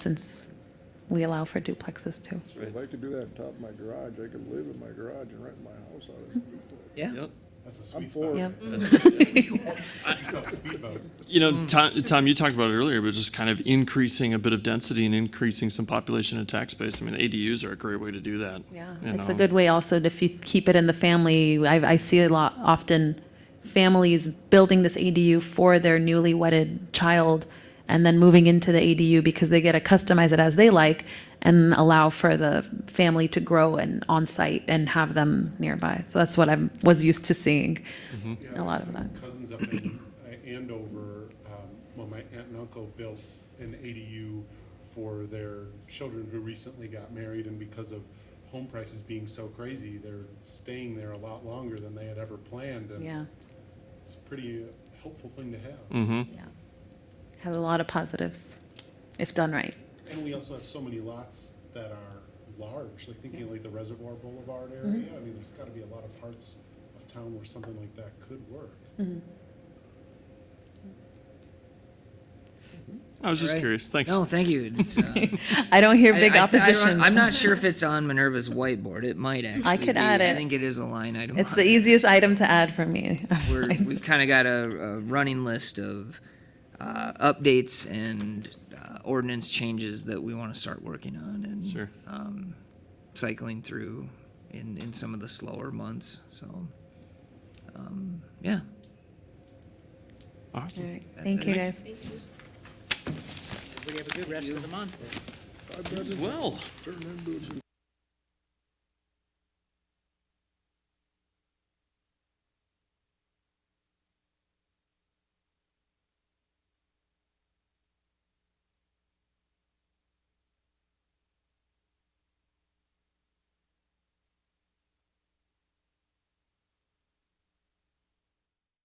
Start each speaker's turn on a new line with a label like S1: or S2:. S1: since we allow for duplexes too.
S2: If I could do that on top of my garage, I could live in my garage and rent my house out as a duplex.
S3: Yeah.
S4: Yep.
S5: That's a
S2: I'm
S5: sweet
S2: for
S5: spot.
S1: Yep.
S2: it.
S5: Get yourself a speedboat.
S4: You know, Tom, Tom, you talked about it earlier, but just kind of increasing a bit of density and increasing some population and tax base. I mean, ADUs are a great way to do that.
S1: Yeah,
S4: you
S1: it's a
S4: know.
S1: good way also to, if you keep it in the family, I, I see a lot, often families building this ADU for their newly wedded child and then moving into the ADU because they get to customize it as they like and allow for the family to grow and on-site and have them nearby. So that's what I am was used to seeing,
S4: Mm-hmm.
S1: a lot of that.
S5: Cousins up in uh, Andover, um, well, my aunt and uncle built an ADU for their children who recently got married, and because of home prices being so crazy, they're staying there a lot longer than they had ever planned, and
S1: Yeah, Mm.
S5: it's a pretty uh, helpful thing to have.
S4: Mm-hmm.
S1: yeah. Has a lot of positives, if done right.
S5: And we also have so many lots that are large, like thinking like the Reservoir Boulevard
S1: Mm-hmm.
S5: area, I mean, there's gotta be a lot of parts of town where something like that could work.
S4: I was just
S3: Alright.
S4: curious. Thanks.
S3: No, thank you. It's, uh,
S1: I don't hear
S3: I-
S1: big
S3: I- I don't-
S1: oppositions.
S3: I'm not sure if it's on Minerva's whiteboard. It might actually.
S1: could
S3: be.
S1: add
S3: I
S1: it.
S3: think it is a line item.
S1: It's
S3: on
S1: the
S3: it.
S1: easiest item to add for me.
S3: We're, we've kind of got a, a running list of uh, updates and uh, ordinance changes that we want to start working on and
S4: Sure.
S3: um, cycling through in, in some of the slower months. So, um, yeah.
S1: All
S4: Awesome.
S1: right, Thank you,
S3: it.
S1: guys.
S6: Everybody have a good rest of the month.
S2: I've never
S4: Well,
S2: turned into a